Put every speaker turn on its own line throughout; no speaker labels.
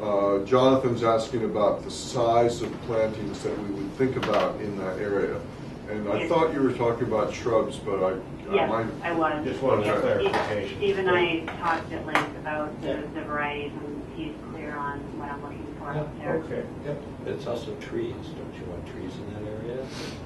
Uh, Jonathan's asking about the size of plantings that we would think about in that area. And I
Yes.
thought you were talking about shrubs, but I, I
Yes, I
might,
was.
Just wanted
a
clarification.
Steve and e-, I talked at length about the the varieties, and he's clear on what I'm looking for
Yeah,
out there.
Okay.
Yep.
It's also trees, don't you want trees in that area?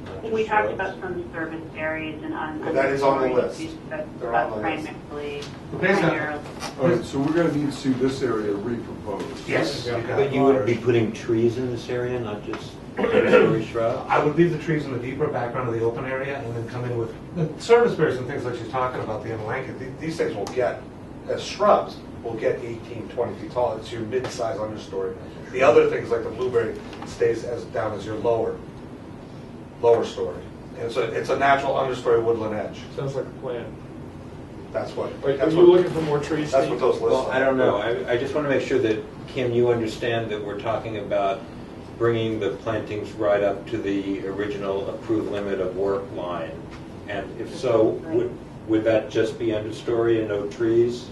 Not
We
just
talked
shrubs?
about some service areas and on.
But that is on the list.
But
They're on the list.
primarily,
Based on-
primarily.
all right, so we're gonna need to see this area reproposed.
Yes.
Yeah.
you got
But
it.
you would be putting trees in this area, not just temporary shrubs?
I would leave the trees in the deeper background of the open area and then come in with the service berries and things like she's talking about, the amelanchids.
Th- These things will get, as shrubs, will get 18, 20 feet tall. It's your mid-size understory. The other things, like the blueberry, stays as, down as your lower, lower story. And so it's a natural understory woodland edge.
Sounds like a plan.
That's what,
Are are
that's
you
what,
looking for more trees?
that's
Steve?
what those lists
Well, I don't
are.
know, I, I just want to make sure that, Kim, you understand that we're talking about bringing the plantings right up to the original approved limit of work line. And if so, would, would that just be understory and no trees?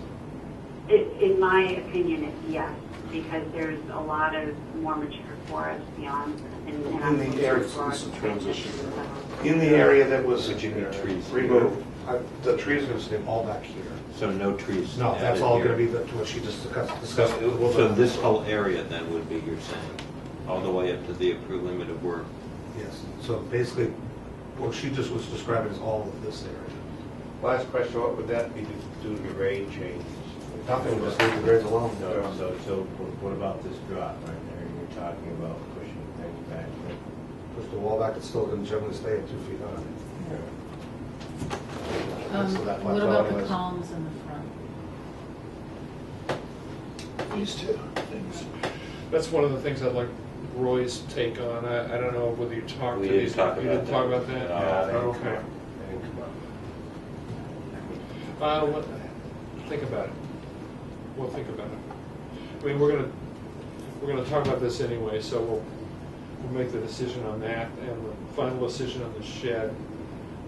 It- In my opinion, it's yes, because there's a lot of more mature forest beyond. and- and I'm
In the air, it's-
looking
it's a
for
transition
transition.
In the area that was
Would you need trees?
removed, I- the trees are going to stay all back here.
So no trees?
No, that's
added
all
here.
going to be the- what she just discussed.
So,
discussed.
so this whole area then would be, you're saying, all the way up to the approved limit of work?
Yes, so basically, what she just was describing is all of this area.
Last question, what would that be to do to the grade changes?
Nothing, just leave the grades alone.
No, so, so what about this drop right there? You were talking about pushing things back.
Push the wall back, it's still going to generally stay at two feet high.
Um,
So that
What
plateau
about the
anyways.
columns in the front?
These two things.
That's one of the things I'd like Roy's take on. I, I don't know whether you talked
We
to
didn't
these.
talk
you
about
didn't talk
that.
about that?
No.
Yeah, they didn't come
Okay.
up. They didn't come up.
Uh, what, think about it. We'll think about it. I mean, we're gonna, we're gonna talk about this anyway, so we'll, we'll make the decision on that and the final decision on the shed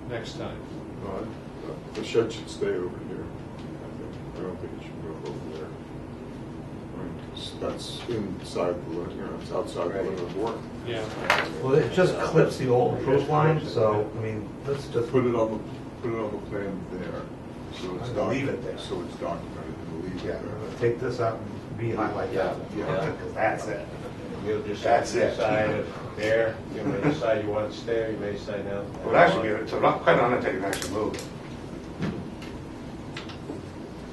next time.
No, I- Uh, The shed should stay over here. I think. I don't think it should go over there. I mean, 'cause That's inside the, limit, you know, it's outside the limit of work.
Yeah.
Well, it just clips the old approved line, so, I mean, let's just.
Put it on the, put it on the plan there, so it's
I'm gonna leave it
documented,
there.
so it's documented, and leave
Yeah,
it there.
take this out and be highlight that.
Yeah.
Because that's it.
You'll just
That's it.
decide if there, you may decide you want to stay, you may decide no.
It would actually be, it's not quite on it, they can actually move. it.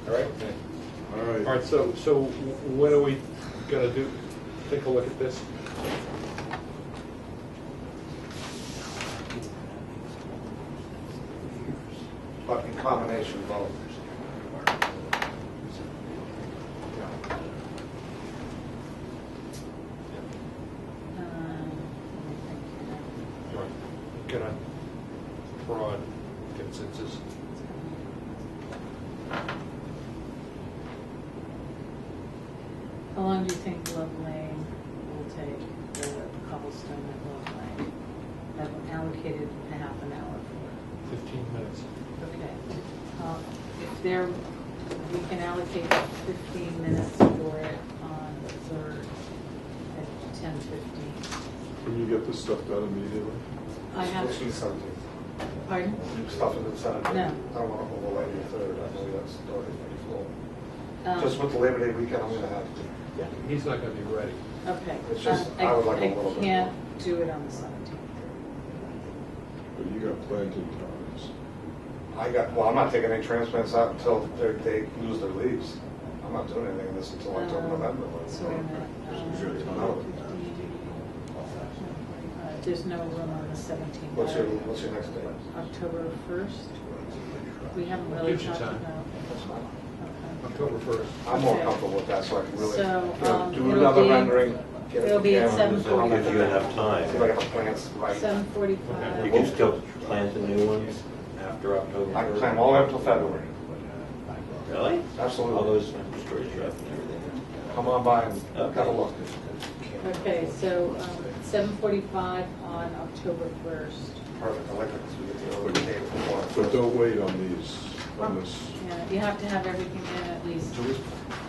All right.
All
All
right.
right, so, so when are we gonna do, take a look at this?
But in combination, both.
Um,
Get a broad consensus.
How long do you think Love Lane will take, the cobblestone at Love Lane? I've allocated a half an hour for
15 minutes.
it. Okay. Uh, If there, we can allocate fifteen minutes for it on the third at ten fifteen.
Can you get this stuff done immediately?
I have,
Let's do something.
pardon?
Stuff in the center.
No.
I don't want to overlay the third, I believe that's the third and fourth.
Um,
Just with the Labor Day weekend, I'm gonna have
He's not gonna be ready.
Okay.
It's just,
Um,
I would like a little bit
I can't do it on the seventeenth.
But you got planting times.
I got, well, I'm not taking any transplants out until they're- they lose their leaves. I'm not doing anything in this until
Oh,
October, November.
So wait a minute. Um, uh, There's no room on the seventeenth.
What's your, what's your next day?
October first? We haven't really
Gives you
talked
time.
about. okay.
October 1st.
I'm more
Okay.
comfortable with that, so I can really, you
So,
know,
um,
do
it'll
another
be-
rendering. get it
it'll be at
together,
seven
and then I'll
Gives you enough
See if I
time.
got the plants right.
Seven
You
forty-five.
can still plant the new ones after October.
I can plan all the way up till February.
Really? All
Absolutely.
those storage shrubs and everything.
Come on by and have a look.
Okay, so, um, seven forty-five on October first.
Perfect, I like that, 'cause we get the early day before.
But don't wait on these, on this.
Yeah, you have to have everything in at least
Two weeks.